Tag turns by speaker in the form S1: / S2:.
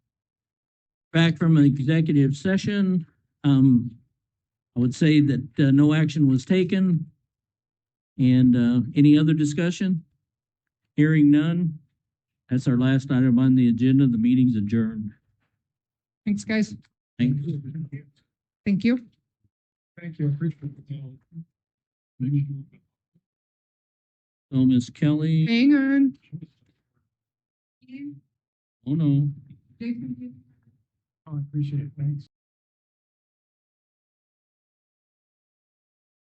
S1: back from an executive session. Um, I would say that, uh, no action was taken. And, uh, any other discussion? Hearing none. That's our last item on the agenda. The meeting's adjourned.
S2: Thanks, guys.
S1: Thank
S2: Thank you.
S3: Thank you, I appreciate it.
S1: So Ms. Kelly,
S2: Hang on.
S1: oh no. Oh,
S3: I Oh, appreciate it, thanks.